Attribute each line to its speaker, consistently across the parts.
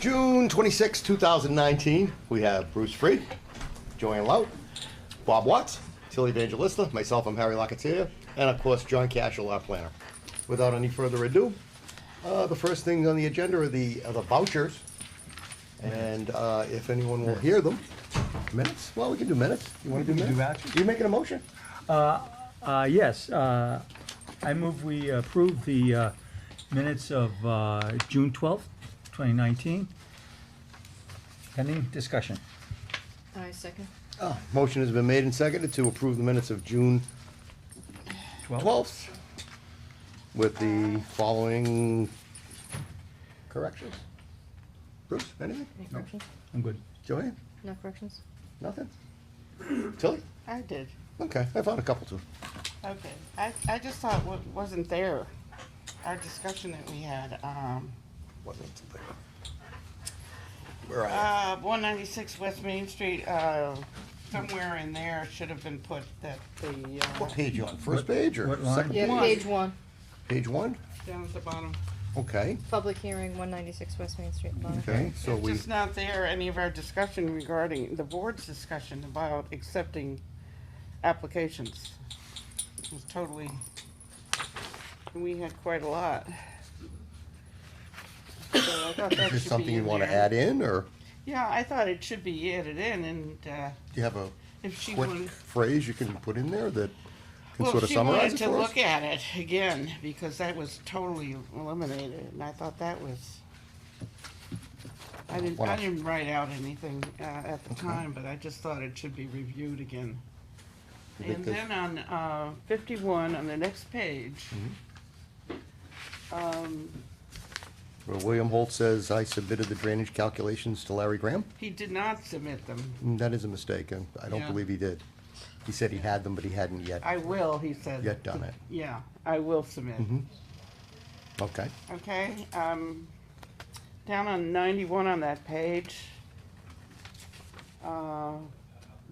Speaker 1: June 26, 2019, we have Bruce Freed, Joanne Lout, Bob Watts, Tilly Evangelista, myself, I'm Harry Locatier, and of course, John Cashel, our planner. Without any further ado, uh, the first things on the agenda are the, are the vouchers. And uh, if anyone will hear them, minutes, well, we can do minutes. You want to do
Speaker 2: We can do
Speaker 1: minutes?
Speaker 2: vouchers.
Speaker 1: You making a motion?
Speaker 2: Uh, yes, uh, I move we approve the uh, minutes of uh, June twelfth, twenty nineteen. Pending discussion.
Speaker 3: I second.
Speaker 1: Motion has been made and seconded to approve the minutes of June 12th with the following corrections. Bruce, anything?
Speaker 3: Any corrections?
Speaker 2: I'm good.
Speaker 1: Joanne?
Speaker 3: No corrections?
Speaker 1: Nothing? Tilly?
Speaker 4: I did.
Speaker 1: Okay, I found a couple too.
Speaker 4: Okay. I, I just thought what wasn't there, our discussion that we had, um,
Speaker 1: Wasn't there. Where are
Speaker 4: uh, one ninety-six West Main Street, uh, somewhere in there should have been put that the,
Speaker 1: you?
Speaker 4: uh,
Speaker 1: What page you on? First page or
Speaker 2: what line?
Speaker 1: second?
Speaker 3: Yeah,
Speaker 4: One.
Speaker 3: page one,
Speaker 1: Page one?
Speaker 4: down at the bottom.
Speaker 1: Okay,
Speaker 3: public hearing, one ninety-six West Main Street, Bonner.
Speaker 1: okay, so
Speaker 4: It's
Speaker 1: we,
Speaker 4: just not there, any of our discussion regarding, the board's discussion about accepting applications. It was totally, we had quite a lot. So I thought that
Speaker 1: is this
Speaker 4: should be
Speaker 1: something you
Speaker 4: in
Speaker 1: want to
Speaker 4: there.
Speaker 1: add in or
Speaker 4: Yeah, I thought it should be added in, and uh,
Speaker 1: do you have a
Speaker 4: if she
Speaker 1: quick
Speaker 4: wanted,
Speaker 1: phrase you can put in there that can
Speaker 4: well,
Speaker 1: sort of
Speaker 4: if she wanted
Speaker 1: summarize it
Speaker 4: to
Speaker 1: for us?
Speaker 4: look at it again, because that was totally eliminated, and I thought that was, I didn't,
Speaker 1: Why
Speaker 4: I
Speaker 1: not?
Speaker 4: didn't write out anything uh, at the time, but I just thought it should be reviewed again.
Speaker 1: You think
Speaker 4: And
Speaker 1: that-
Speaker 4: then on uh, fifty-one, on the next page,
Speaker 1: Mm-hmm.
Speaker 4: um,
Speaker 1: Well, William Holt says, I submitted the drainage calculations to Larry Graham.
Speaker 4: he did not submit them.
Speaker 1: Mm, That is a mistake, and I don't
Speaker 4: Yeah.
Speaker 1: believe he did. He said he had them, but he hadn't yet.
Speaker 4: I will, he said.
Speaker 1: Yet done Mm-hmm. it.
Speaker 4: Yeah, I will submit.
Speaker 1: Okay.
Speaker 4: Okay, um, down on ninety-one on that page, uh,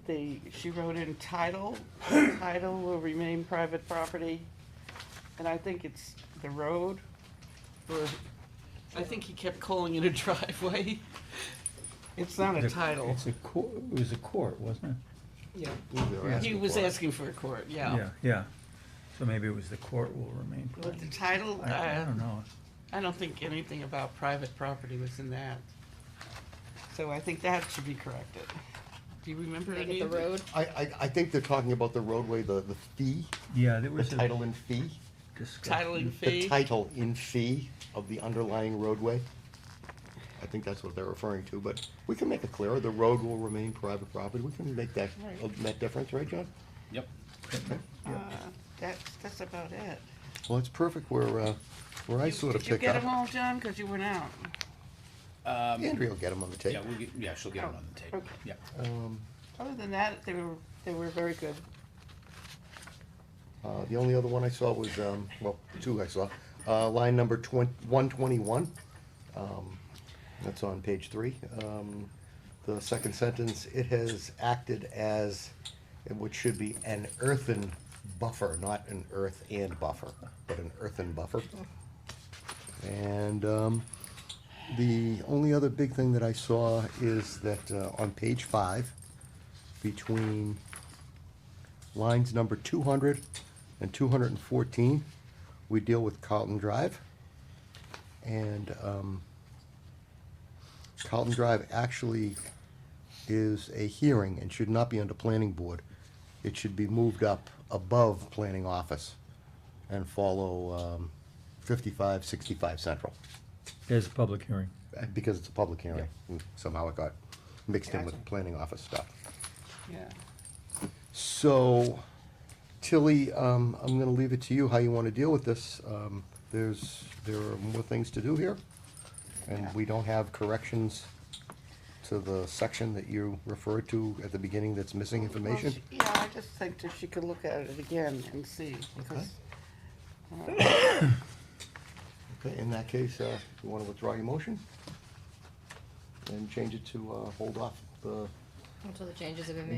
Speaker 4: the, she wrote in title, title will remain private property, and I think it's the road, or,
Speaker 5: I think he kept calling it a driveway.
Speaker 4: it's not a
Speaker 2: The-
Speaker 4: title.
Speaker 2: It's a court, it was a court, wasn't
Speaker 5: Yeah. He
Speaker 1: asking
Speaker 5: was
Speaker 1: for it.
Speaker 5: asking for a court,
Speaker 2: it?
Speaker 5: yeah.
Speaker 2: Yeah, so maybe it was the court will remain.
Speaker 4: But the title,
Speaker 2: I, I
Speaker 4: uh,
Speaker 2: don't know.
Speaker 4: I don't think anything about private property was in that. So I think that should be corrected. Do you remember
Speaker 3: Make
Speaker 4: any
Speaker 3: it the
Speaker 4: of it?
Speaker 3: road,
Speaker 1: I, I, I think they're talking about the roadway, the, the fee,
Speaker 2: Yeah, there
Speaker 1: the
Speaker 2: was a
Speaker 1: title and fee,
Speaker 2: discussion.
Speaker 4: Title and
Speaker 1: the
Speaker 4: fee?
Speaker 1: title in fee of the underlying roadway. I think that's what they're referring to, but we can make it clearer, the road will remain private property, we can make that,
Speaker 4: Right.
Speaker 1: that difference, right, John?
Speaker 6: Yep.
Speaker 4: Uh, That's, that's about it.
Speaker 1: Well, it's perfect where, uh, where I
Speaker 4: You-
Speaker 1: sort of
Speaker 4: Did you
Speaker 1: pick
Speaker 4: get them
Speaker 1: up.
Speaker 4: all, John? Because you went out.
Speaker 1: Andrea will get them on the tape.
Speaker 6: Um, Yeah, we'll get, yeah, she'll get it on the tape.
Speaker 4: Okay.
Speaker 6: Yeah.
Speaker 4: Other than that, they were, they were very good.
Speaker 1: Uh, the only other one I saw was, um, well, two I saw, uh, line number twen- one twenty-one. Um, that's on page three. Um, the second sentence, it has acted as, which should be an earthen buffer, not an earth and buffer, but an earthen buffer. And, um, the only other big thing that I saw is that, uh, on page five, between lines number 200 and 214, we deal with Carlton Drive. And um, Carlton Drive actually is a hearing and should not be under planning board. It should be moved up above planning office and follow um, 55, 65 Central,
Speaker 2: There's a public hearing.
Speaker 1: uh, because it's a public hearing. Mm, Somehow it got mixed in with
Speaker 4: Gotcha.
Speaker 1: planning office stuff.
Speaker 4: Yeah.
Speaker 1: So, Tilly, um, I'm gonna leave it to you how you wanna deal with this. Um, there's, there are more things to do here, and we don't have corrections to the section that you referred to at the beginning that's missing
Speaker 4: Well,
Speaker 1: information.
Speaker 4: she- Yeah, I just think that she could look at it again and see, because
Speaker 1: Okay, in that case, uh, you wanna withdraw your motion? And change it to, uh, hold off the
Speaker 3: until the changes have been made.